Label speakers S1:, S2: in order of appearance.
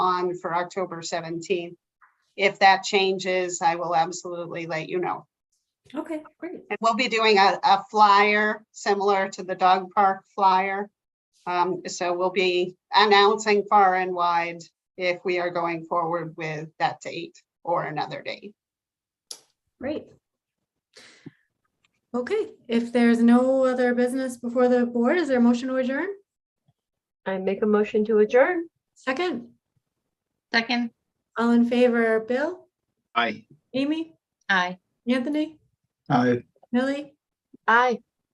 S1: on for October seventeenth. If that changes, I will absolutely let you know.
S2: Okay, great.
S1: And we'll be doing a, a flyer similar to the dog park flyer. Um, so we'll be announcing far and wide if we are going forward with that date or another date.
S2: Great. Okay, if there's no other business before the board, is there a motion to adjourn?
S3: I make a motion to adjourn.
S2: Second,
S4: Second,
S2: all in favor, Bill,
S5: Aye.
S2: Amy,
S4: aye.
S2: Anthony,
S5: Aye.
S2: Millie,
S3: Aye.